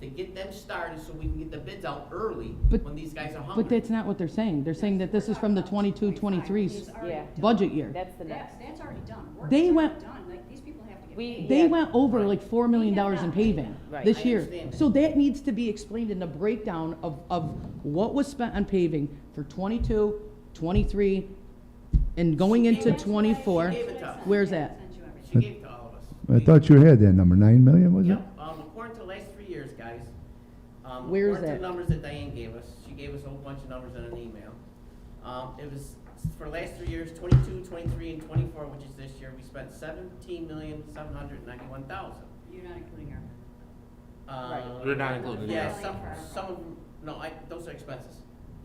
to get them started so we can get the bids out early But- when these guys are hungry. But that's not what they're saying. They're saying that this is from the 22-23 Yeah. budget year. That's the That's, next. that's already done. Work They is already went- Done, like, these people have to get We- paid. They Yeah. went over like four million dollars in paving Right. this I year. understand that. So that needs to be explained in the breakdown of, of what was spent on paving for 22, 23, and going into That's what I- twenty-four. She gave it to us. Where's I that? sent you everything. She gave it to all of us. I thought you had that number, nine million, was it? Yep, um, according to the last three years, guys. um, Where is According that? to the numbers that Diane gave us, she gave us a whole bunch of numbers in an email. Um, it was, for the last three years, twenty-two, twenty-three, and twenty-four, which is this year, we spent seventeen million, seven hundred ninety-one thousand. You're not including her. Um, We're not including Yeah, that. some, some of, them- no, I, those are expenses.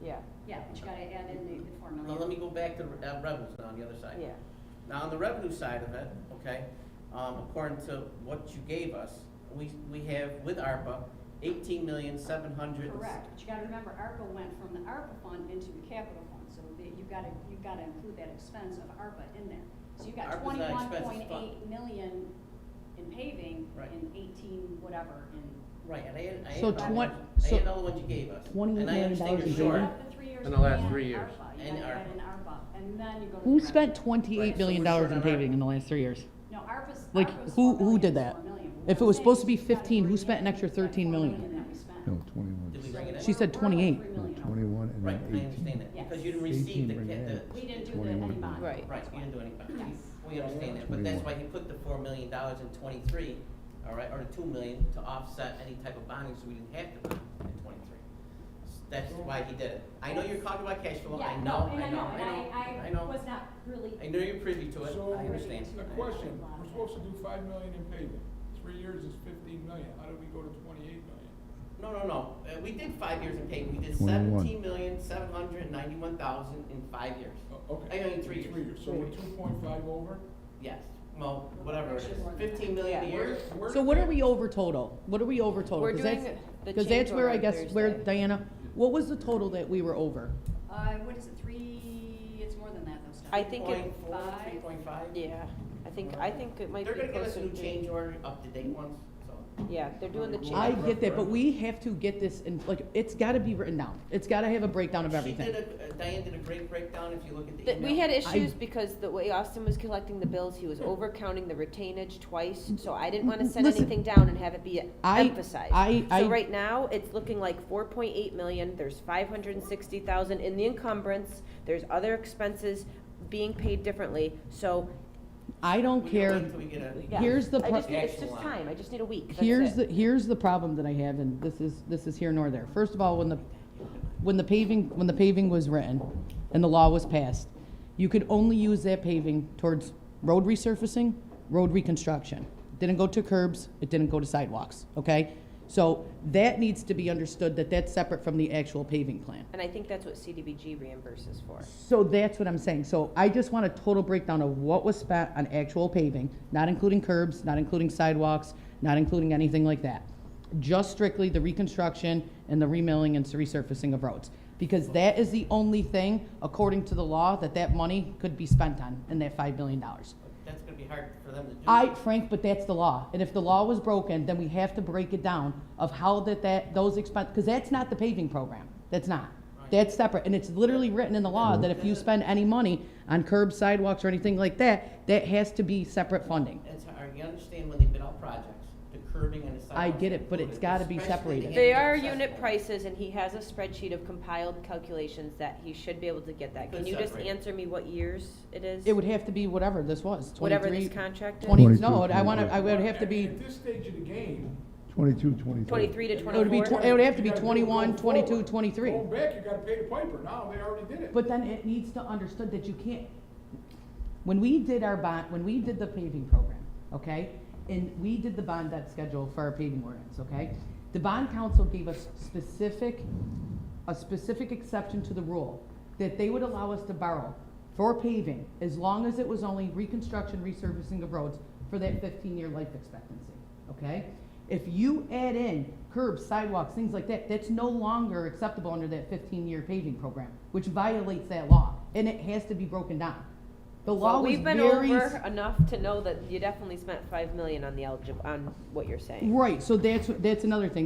Yeah, Yeah, but you gotta add in the, the four million. Now, let me go back to the uh, revenues on the other side. yeah. Now, on the revenue side of it, okay, um, according to what you gave us, we, we have with ARPA, eighteen million, seven hundred. Correct, but you gotta remember, ARPA went from the ARPA fund into the capital fund, so the- you gotta, you gotta include that expense of ARPA in there. So you got ARPA's not twenty-one expense, it's point eight million in paving Right. and eighteen whatever in. Right, and I had, I So had, all twen- the- I so had all the ones you gave us. $20 And I million understand dollars you're in short. paving? Up to three years In the last and three years. ARPA. And You gotta add ARPA. in ARPA, and then you go to. Who the spent revenue. twenty-eight million dollars in paving in the last three years? No, ARPA's, Like, ARPA's who- who four million did is that? four million. What If it I'm was saying supposed is to be you gotta 15, who bring spent an in extra that four 13 million? million that we spent. No, twenty-one. Did we bring it in? She said We're- 28. we're like three No, million over. twenty-one and Right, then I eighteen. understand that, Yes. because you didn't receive 18 the, bring it ca- in. We didn't do the, any 21 bond. Right. the, right, you didn't do any bond. Yes. We understand that, but that's why 21. he put the four million dollars in twenty-three, all right, or the two million to offset any type of bonding, so we didn't have to bond in twenty-three. That's why he did it. I know you're talking about cash flow, I Yeah, know, no, and I know, I know, I and I, I know. was not really. I know you're privy to it, So, I understand. A question, we're supposed to do five million in paving, three years is fifteen million, how did we go to twenty-eight million? No, no, no, Uh, we did five years in payment, we did 21. seventeen million, seven hundred and ninety-one thousand in five years. Oh, Okay. I mean, three years. so we're two point five over? Yes, well, whatever it is, fifteen million a Yeah. year. Where So did what that- are we over total? What are we over total? We're 'Cause doing that's- the Cause that's where changeover I on guess, where, Thursday. Diana, what was the total that we were over? Uh, what is it, three, it's more than that though, Steph. I think it- Point four, three point five. Yeah, I think, I think it might be They're gonna give us a closer new change to, order, up-to-date ones, so. yeah, they're doing the change. I get that, but we have to get this in, like, it's gotta be written down. It's gotta have a breakdown of everything. She did a, uh, Diane did a great breakdown, if you look at the That email. we had issues because the way Austin was collecting the bills, he was overcounting the retainage twice, so I didn't wanna send Listen. anything down and have it be I- emphasized. I- I- So right now, it's looking like four point eight million, there's five hundred and sixty thousand in the encumbrance, there's other expenses being paid differently, so, I don't We can wait care. till we get a- yeah. Here's the I pro- just need- It's Actual just line. time, I just need a week, that's Here's it. the, here's the problem that I have, and this is, this is here nor there. First of all, when the, when the paving, when the paving was written and the law was passed, you could only use that paving towards road resurfacing, road reconstruction. Didn't go to curbs, it didn't go to sidewalks, okay? So that needs to be understood, that that's separate from the actual paving plan. And I think that's what CDBG reimburses for. So that's what I'm saying. So I just want a total breakdown of what was spent on actual paving, not including curbs, not including sidewalks, not including anything like that. Just strictly the reconstruction and the remilling and resurfacing of roads. Because that is the only thing, according to the law, that that money could be spent on in that five million dollars. That's gonna be hard for them to do. I, Frank, but that's the law. And if the law was broken, then we have to break it down of how that, that, those expense, because that's not the paving program. That's not. Right. That's separate. And it's literally written in the law that if you spend any money on curb sidewalks or anything like that, that has to be separate funding. It's hard, you understand when they bid out projects, the curbing and the sidewalks. I get it, but it's included, gotta be especially separated. the They handicap are unit accessible. prices, and he has a spreadsheet of compiled calculations that he should be able to get that. Can you just Separate. answer me what years it is? It would have to be whatever this was, Whatever this twenty-three, contract is? twenty, 22, no, I wanna, 23. I would have to be, At this stage of the game. Twenty-two, twenty-three. Twenty-three to you It would be gotta tw- do twenty-four? it would have to be you gotta do 21, going forward. 22, 23. Going back, you gotta pay the piper, now they already did it. but then it needs to understood that you can't, when we did our bond, when we did the paving program, okay? And we did the bond debt schedule for our paving ordinance, okay? The bond council gave us specific, a specific exception to the rule that they would allow us to borrow for paving as long as it was only reconstruction, resurfacing of roads for that fifteen-year life expectancy, okay? If you add in curbs, sidewalks, things like that, that's no longer acceptable under that fifteen-year paving program, which violates that law, and it has to be broken down. The So law was We've been very. over enough to know that you definitely spent five million on the eligible, on what you're saying. Right, so that's, that's another thing.